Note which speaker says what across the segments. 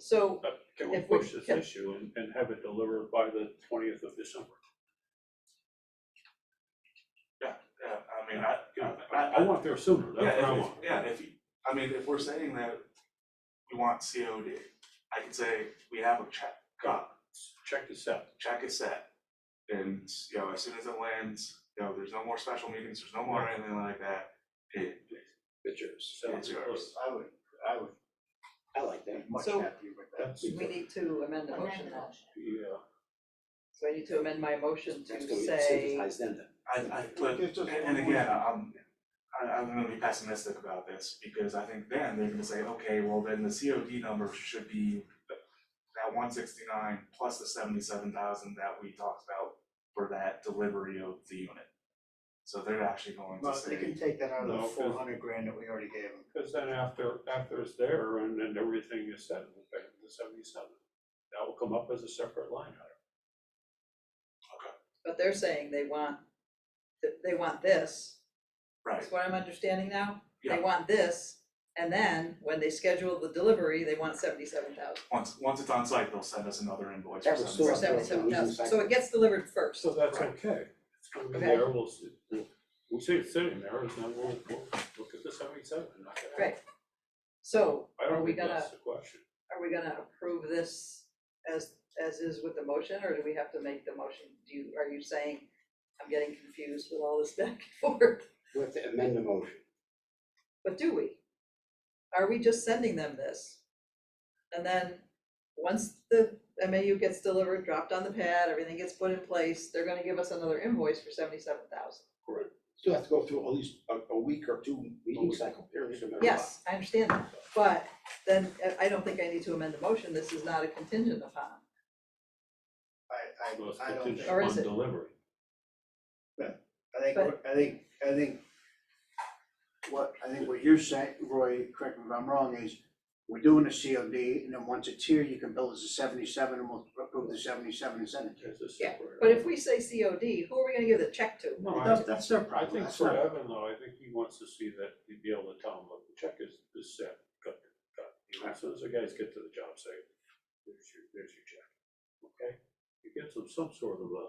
Speaker 1: So,
Speaker 2: But Uh, Can we
Speaker 1: If we-
Speaker 2: push this
Speaker 1: can-
Speaker 2: issue and, and have it delivered by the twentieth of December?
Speaker 3: Yeah, I mean, I, I,
Speaker 2: I, I want there sooner,
Speaker 3: yeah,
Speaker 2: that's what I
Speaker 3: if-
Speaker 2: want.
Speaker 3: if- Yeah, if, you- I mean, if we're saying that we want COD, I could say we have a check, uh,
Speaker 2: Check this out.
Speaker 3: check is set. And, you know, as soon as it lands, you know, there's no more special meetings, there's no more anything like that, it,
Speaker 2: It's yours. So
Speaker 3: It's yours.
Speaker 4: I would, I would, I like that, much
Speaker 1: So-
Speaker 4: happier with that.
Speaker 2: That's- uh,
Speaker 1: we need to amend the motion
Speaker 5: Amend the
Speaker 1: now.
Speaker 5: motion.
Speaker 2: Yeah,
Speaker 1: So I need to amend my motion
Speaker 4: That's
Speaker 1: to
Speaker 4: gonna
Speaker 1: say,
Speaker 4: synthesize them then.
Speaker 3: I, I, but,
Speaker 4: It's just
Speaker 3: and
Speaker 4: one
Speaker 3: again, I'm, I, I'm gonna be pessimistic about this, because I think then they're gonna say, okay, well, then the COD number should be that one sixty-nine plus the seventy-seven thousand that we talked about for that delivery of the unit. So they're actually going to
Speaker 4: Well, they
Speaker 3: say,
Speaker 4: can take that out of
Speaker 2: No,
Speaker 4: the
Speaker 2: 'cause-
Speaker 4: four hundred grand that we already gave them.
Speaker 2: because then after, after it's there and then everything is set, we'll pay the seventy-seven. That will come up as a separate line item.
Speaker 1: but they're saying they want, th- they want this,
Speaker 3: right,
Speaker 1: is what I'm understanding now?
Speaker 3: Yeah.
Speaker 1: They want this, and then when they schedule the delivery, they want seventy-seven thousand,
Speaker 3: once, once it's on site, they'll send us another invoice
Speaker 4: That
Speaker 3: for
Speaker 4: was
Speaker 3: some.
Speaker 1: for
Speaker 4: Sure.
Speaker 1: seventy-seven thousand, so
Speaker 4: Exactly.
Speaker 1: it gets delivered first.
Speaker 2: So that's
Speaker 3: Right.
Speaker 2: okay. It's gonna be
Speaker 1: Okay.
Speaker 2: there, we'll see, we'll, we see it sitting there, and then we'll, we'll look at the seventy-seven. and knock it out.
Speaker 1: Right. So,
Speaker 2: I
Speaker 1: Are
Speaker 2: don't
Speaker 1: we
Speaker 2: think that's
Speaker 1: gonna-
Speaker 2: the question.
Speaker 1: are we gonna approve this as, as is with the motion, or do we have to make the motion? Do you, are you saying, I'm getting confused with all this back and forth,
Speaker 4: We have to amend the motion.
Speaker 1: but do we? Are we just sending them this? And then, once the MAU gets delivered, dropped on the pad, everything gets put in place, they're gonna give us another invoice for seventy-seven thousand.
Speaker 4: Still have to go through at least a, a week or two meeting cycle periods no matter what.
Speaker 1: Yes, I understand that, but then, uh, I don't think I need to amend the motion, this is not a contingent upon.
Speaker 6: I,
Speaker 2: Well, it's
Speaker 6: I, I don't think,
Speaker 2: contingent
Speaker 1: Or
Speaker 2: on
Speaker 1: is it-
Speaker 2: delivery.
Speaker 6: I think, what- I think, I think what, I think what you're saying, Roy, correct me if I'm wrong, is we're doing a COD, and then once it's here, you can bill us a seventy-seven, and we'll approve the seventy-seven and send it to you.
Speaker 2: It's a
Speaker 1: Yeah,
Speaker 2: separate.
Speaker 1: But if we say COD, who are we gonna give the check to?
Speaker 2: No, I-
Speaker 6: That's, that's their
Speaker 2: I
Speaker 6: problem,
Speaker 2: think
Speaker 6: that's
Speaker 2: for
Speaker 6: not-
Speaker 2: Evan though, I think he wants to see that he'd be able to tell him, look, the check is, is set, cut, cut. You know, As soon as the guys get to the job site, there's your, there's your check, okay? It gives them some sort of a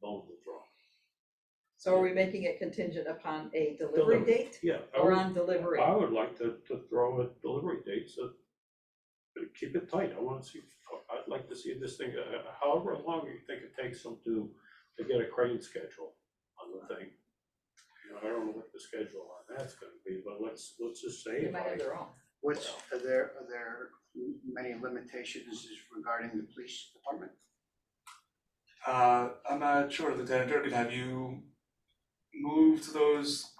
Speaker 2: bone to draw.
Speaker 1: So are we making it contingent upon a delivery
Speaker 2: Delivery.
Speaker 1: date
Speaker 2: Yeah. I
Speaker 1: or
Speaker 2: would-
Speaker 1: on delivery?
Speaker 2: I would like to, to throw a delivery date, so but keep it tight. I wanna see, I'd like to see this thing, uh, however long you think it takes them to, to get a crane schedule on the thing. You know, I don't know what the schedule on that's gonna be, but let's, let's just say
Speaker 1: They
Speaker 2: it
Speaker 1: might have
Speaker 2: like,
Speaker 1: their own.
Speaker 6: what's, are there, are there many limitations regarding the police department?
Speaker 3: Uh, I'm not sure, Lieutenant Durkin, have you moved those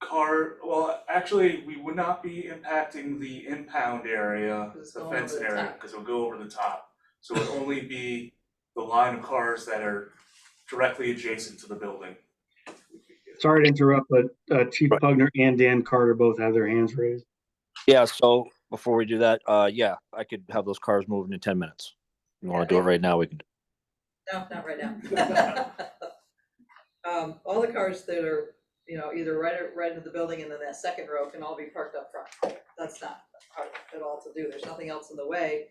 Speaker 3: car, well, actually, we would not be impacting the impound area,
Speaker 1: 'Cause it's
Speaker 3: the
Speaker 1: going
Speaker 3: fenced
Speaker 1: over the
Speaker 3: area,
Speaker 1: top.
Speaker 3: cause it'll go over the top. So it'll only be the line of cars that are directly adjacent to the building.
Speaker 7: Sorry to interrupt, but uh, Chief Pugner and Dan Carter both have their hands raised.
Speaker 8: Yeah, so before we do that, uh, yeah, I could have those cars moving in ten minutes. You wanna do it right now, we can.
Speaker 1: No, not right now. Um, all the cars that are, you know, either right, at- right into the building and then that second row can all be parked up front. That's not hard at all to do. There's nothing else in the way.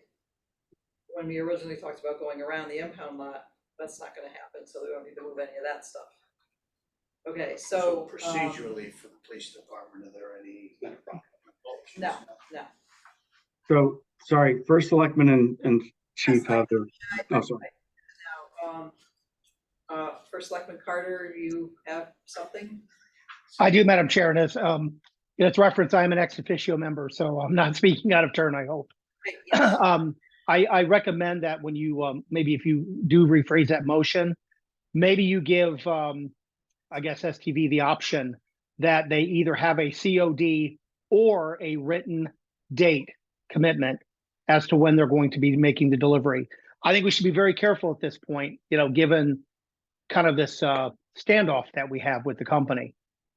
Speaker 1: When we originally talked about going around the impound lot, that's not gonna happen, so we don't need to move any of that stuff. Okay, so, um,
Speaker 6: Procedurally for the police department, are there any?
Speaker 4: Not a problem.
Speaker 1: No.
Speaker 7: So, sorry, First Selectman and, and Chief have their, oh, sorry.
Speaker 1: now, um, uh, First Selectman Carter, you have something?
Speaker 9: I do, Madam Chair, and as, um, in its reference, I am an ex officio member, so I'm not speaking out of turn, I hope.
Speaker 1: Right, yes.
Speaker 9: Um, I, I recommend that when you, um, maybe if you do rephrase that motion, maybe you give, um, I guess STV the option that they either have a COD or a written date commitment as to when they're going to be making the delivery. I think we should be very careful at this point, you know, given kind of this, uh, standoff that we have with the company.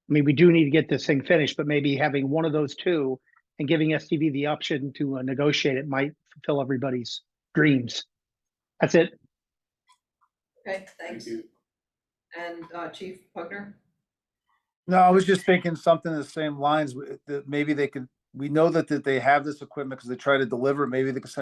Speaker 9: I mean, we do need to get this thing finished, but maybe having one of those two and giving STV the option to uh, negotiate it might fulfill everybody's dreams. That's it.
Speaker 1: Okay,
Speaker 2: thank
Speaker 1: thanks.
Speaker 2: you.
Speaker 1: And uh, Chief Pugner?
Speaker 10: No, I was just thinking something in the same lines, w- that maybe they could, we know that, that they have this equipment because they try to deliver, it. maybe they could send